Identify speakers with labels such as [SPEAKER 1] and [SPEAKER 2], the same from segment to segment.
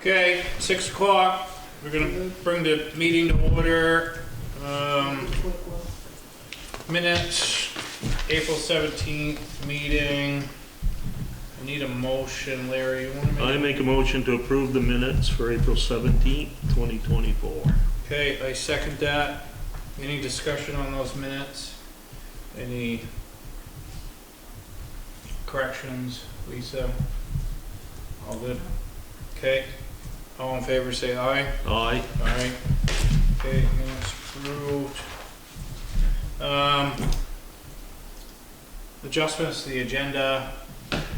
[SPEAKER 1] Okay, six o'clock, we're gonna bring the meeting to order. Um, Minutes, April seventeenth meeting. I Need a motion, Larry, you wanna
[SPEAKER 2] I
[SPEAKER 1] make?
[SPEAKER 2] make a motion to approve the minutes for April seventeenth, twenty twenty-four.
[SPEAKER 1] Okay, I second that. Any discussion on those minutes? Any corrections, Lisa? All good? Okay, all in favor, say aye.
[SPEAKER 2] Aye.
[SPEAKER 1] Alright, okay, minutes approved. Um, adjustments to the agenda,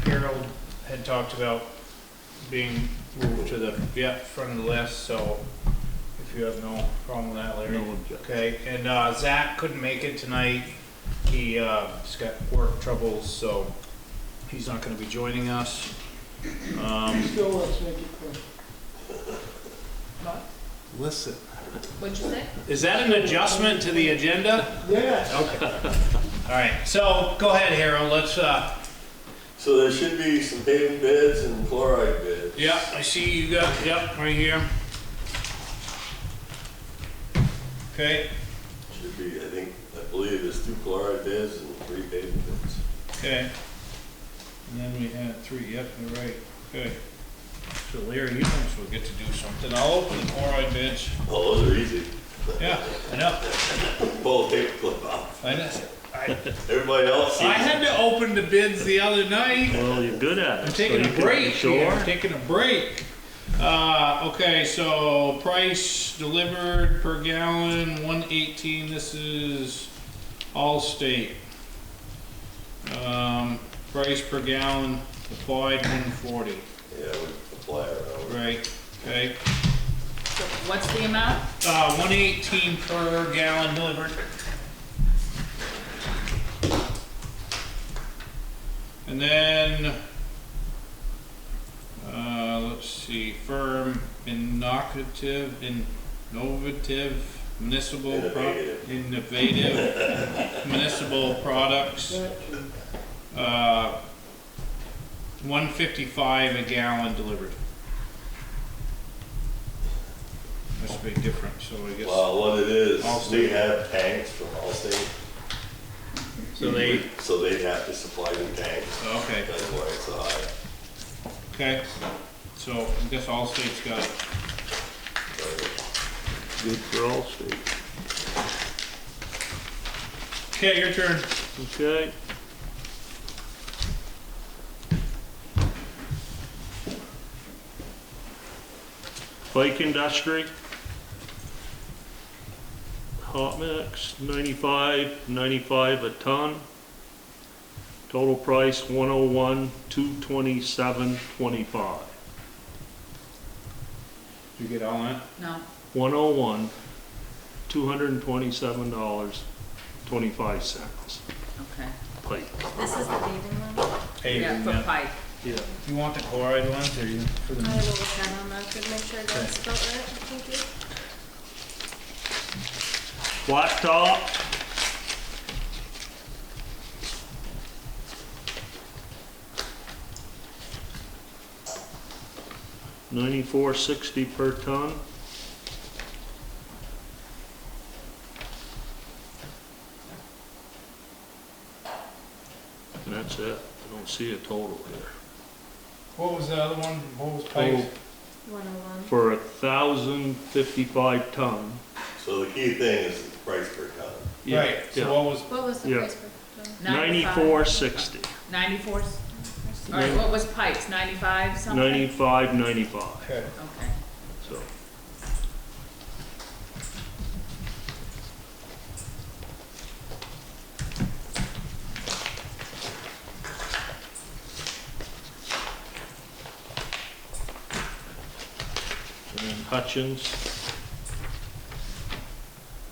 [SPEAKER 1] Harold had talked about being moved to the, yeah, front of the list, so if you have no problem with that,
[SPEAKER 2] No
[SPEAKER 1] Larry.
[SPEAKER 2] objection.
[SPEAKER 1] Okay, and, uh, Zach couldn't make it tonight, he, uh, has got work troubles, so he's not gonna be joining us. Um,
[SPEAKER 3] Still, let's make it clear. Not-
[SPEAKER 4] Listen.
[SPEAKER 5] What'd you say?
[SPEAKER 1] is that an adjustment to the agenda?
[SPEAKER 3] Yes.
[SPEAKER 1] Okay. All right, so go ahead, Harold, let's, uh,
[SPEAKER 6] So there should be some paving beds and chloride beds.
[SPEAKER 1] yeah, I see you got, yep, right here. Okay,
[SPEAKER 6] Should be, I think, I believe there's two chloride beds and three paving beds.
[SPEAKER 1] okay. And then we had three, yep, you're right, okay. So Larry, you might as well get to do something, I'll open the chloride bids,
[SPEAKER 6] Oh, those are easy.
[SPEAKER 1] yeah, I know,
[SPEAKER 6] Pull a paper clip off.
[SPEAKER 1] I know. I,
[SPEAKER 6] Everybody else sees
[SPEAKER 1] I had to open the bids the other night.
[SPEAKER 2] Well, you're good at it.
[SPEAKER 1] I'm
[SPEAKER 2] so
[SPEAKER 1] taking
[SPEAKER 2] you
[SPEAKER 1] a
[SPEAKER 2] can-
[SPEAKER 1] break here,
[SPEAKER 2] Sure.
[SPEAKER 1] I'm taking a break. Uh, okay, so price delivered per gallon, one eighteen, this is Allstate. Um, price per gallon applied one forty,
[SPEAKER 6] Yeah, we apply our own.
[SPEAKER 1] right, okay.
[SPEAKER 5] So What's the amount?
[SPEAKER 1] Uh, one eighteen per gallon delivered. And then, uh, let's see, firm, innovative, innovative, municipal, pro-
[SPEAKER 6] Innovative.
[SPEAKER 1] innovative, municipal products, uh, one fifty-five a gallon delivered. That's a big difference, so I guess.
[SPEAKER 6] Well, what it is,
[SPEAKER 1] Allstate.
[SPEAKER 6] we have tanks from Allstate,
[SPEAKER 1] So they,
[SPEAKER 6] so they have to supply the tanks.
[SPEAKER 1] okay,
[SPEAKER 6] That's why it's so high.
[SPEAKER 1] okay. So I guess all states got it.
[SPEAKER 2] Good for all states.
[SPEAKER 1] Okay, your turn.
[SPEAKER 2] Okay. Bike industry. Hot mix, ninety-five, ninety-five a ton. Total price, one oh one, two twenty-seven, twenty-five.
[SPEAKER 1] You get all that?
[SPEAKER 5] No.
[SPEAKER 2] One oh one, two hundred and twenty-seven dollars, twenty-five cents,
[SPEAKER 5] Okay.
[SPEAKER 2] pike.
[SPEAKER 7] This is the paving one?
[SPEAKER 5] Yeah, for pipe.
[SPEAKER 2] Yeah.
[SPEAKER 1] You want the chloride ones or you for
[SPEAKER 7] I will
[SPEAKER 1] the?
[SPEAKER 7] look at them, I could make sure that's spelled right, thank you.
[SPEAKER 2] Blacktop. Ninety-four sixty per ton. And that's it, I don't see a total here.
[SPEAKER 1] What was the other one? What was
[SPEAKER 2] Total
[SPEAKER 1] pipe?
[SPEAKER 7] One oh one.
[SPEAKER 2] for a thousand fifty-five ton.
[SPEAKER 6] So the key thing is the price per ton.
[SPEAKER 2] Yeah,
[SPEAKER 1] Right, so
[SPEAKER 2] yeah.
[SPEAKER 1] what was,
[SPEAKER 7] What was the
[SPEAKER 2] Yeah.
[SPEAKER 7] price per ton?
[SPEAKER 2] Ninety-four sixty,
[SPEAKER 5] Ninety-four? All right, what was pipes? Ninety-five something?
[SPEAKER 2] ninety-five, ninety-five,
[SPEAKER 1] okay,
[SPEAKER 5] Okay.
[SPEAKER 2] so. And then Hutchins.